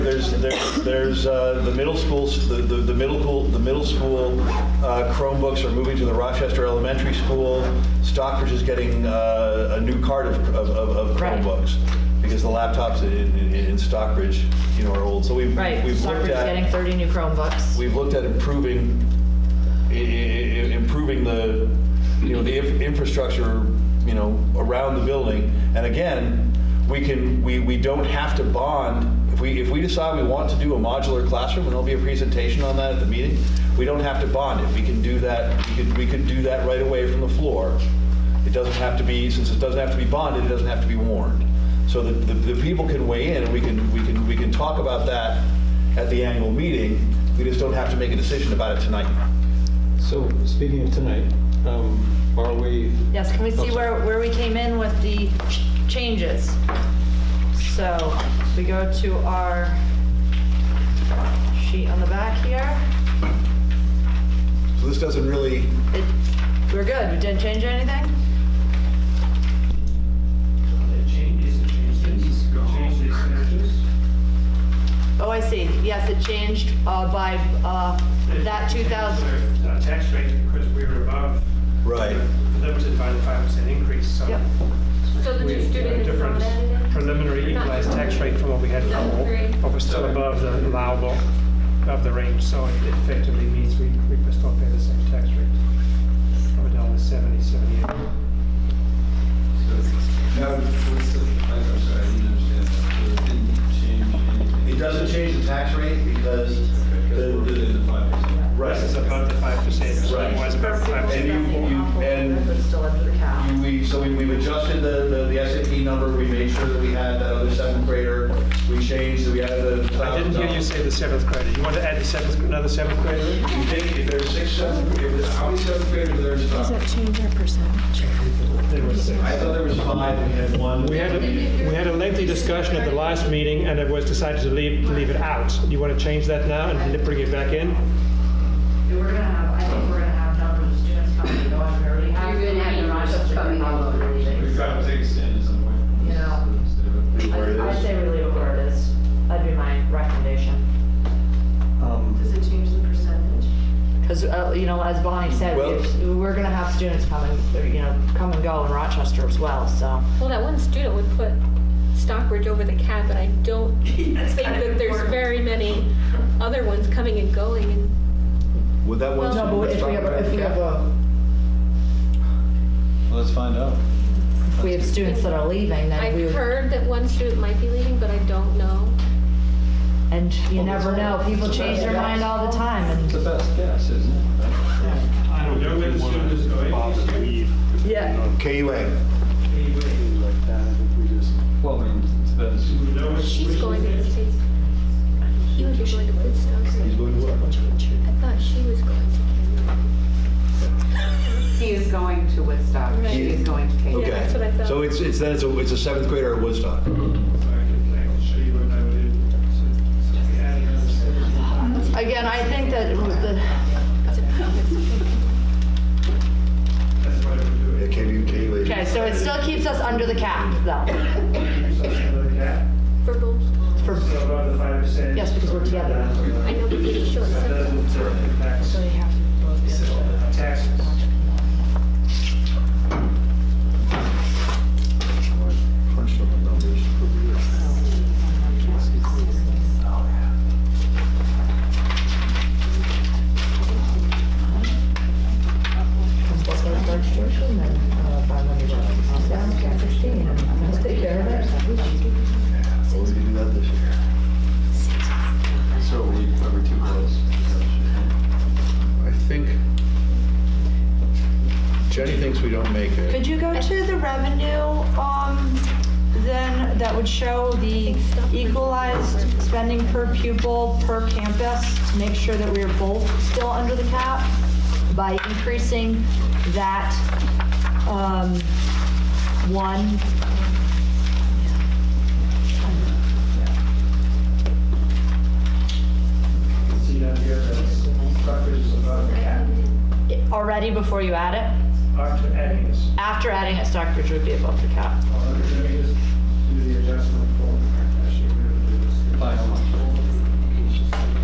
there's, there's, there's uh, the middle schools, the, the the middle school, the middle school uh, Chromebooks are moving to the Rochester Elementary School. Stockbridge is getting uh, a new cart of, of- of of Right. Chromebooks because the laptops in, in- in Stockbridge, you know, are old. So we've, Right, we've Stockbridge looked is getting at, 30 new Chromebooks. we've looked at improving, i- i- i- improving the, you know, the inf- infrastructure, you know, around the building. And again, we can, we, we don't have to bond. If we, if we decide we want to do a modular classroom, and there'll be a presentation on that at the meeting, we don't have to bond it. We can do that, we could, we could do that right away from the floor. It doesn't have to be, since it doesn't have to be bonded, it doesn't have to be warned. So that the, the people can weigh in, and we can, we can, we can talk about that at the annual meeting. We just don't have to make a decision about it tonight. So, speaking of tonight, um, are we, Yes, can we see Oh, where, where we came in with the ch- changes? So we go to our sheet on the back here. So this doesn't really, It- We're good, we didn't change anything? changes, it changes, changes, changes. Oh, I see, yes, it changed uh, by uh, that 2,000. Uh, Tax rate, because we were above. Right. Limited by the five percent increase, so. Yep. So the We new have a student is different not added in? preliminary equalized tax rate from what we had before, but we're still above the allowable, above the range, so it effectively means we, we must still pay the same tax rate. Of a dollar seventy, seventy-eight. Now, what's the, I'm sorry, I didn't understand that, so it didn't change anything? it doesn't change the tax rate because the, Because we're within the, the five percent. right. This is above the five percent, Right. otherwise above the five And percent. you- you, and still under the cap. we, so we- we've adjusted the, the- the SAP number, we made sure that we had that other seventh grader, we changed, we added the. I didn't hear you say the seventh grader, you want to add the seventh, another seventh grader? in? You think if there's six seventh, if, there's- how many seventh graders are there in Does that Stockbridge? change our percentage? There was six. I thought there was five, and we had one. We had, a- we had a lengthy discussion at the last meeting, and it was decided to leave, to leave it out. Do you want to change that now and bring it back in? We're gonna have, I think we're gonna have numbers of students coming and going, we already have. You're gonna have the Rochester coming all over. We've got to take a stand at some point. You know. I- I'd say we leave it where it is, that'd be my recommendation. um, Does it change the percentage? Because, uh, you know, as Bonnie said, Well- we've- we're going to have students coming, you know, come and go in Rochester as well, so. Well, that one student would put Stockbridge over the cap, and I don't think that there's very many other ones coming and going. And Would that one? No, but if we have, if we have, a- let's find out. if we have students that are leaving, then we, I've would- heard that one student might be leaving, but I don't know. and you never know, people change their mind all the time, It's and. the best guess, isn't it? I don't know where the student is going. Yeah. KUA. Well, I mean, it depends. She's going to the States. He would be going to Woodstock. I thought she was going to Canada. He is going to Woodstock, Right. she is going to Cambridge. Okay. Yeah, that's what I thought. So it's, it's, then it's a, it's a seventh grader at Woodstock. Again, I think that with the, Yeah, KU, KUA. okay, so it still keeps us under the cap, though, For both. for, yes, because we're together. I know, but it's short. That sentence. doesn't impact So they have to both be. taxes. Take care of it. Well, we can do that this year. So are we, are we too close? I think Jenny thinks we don't make it. Could you go to the revenue, um, then, that would show the equalized spending per pupil per campus to make sure that we are both still under the cap by increasing that, um, one. See down here, that's, Stockbridge is above the cap. Already before you add it, After adding this, after adding it, Stockbridge would be above the cap. let me just do the adjustment for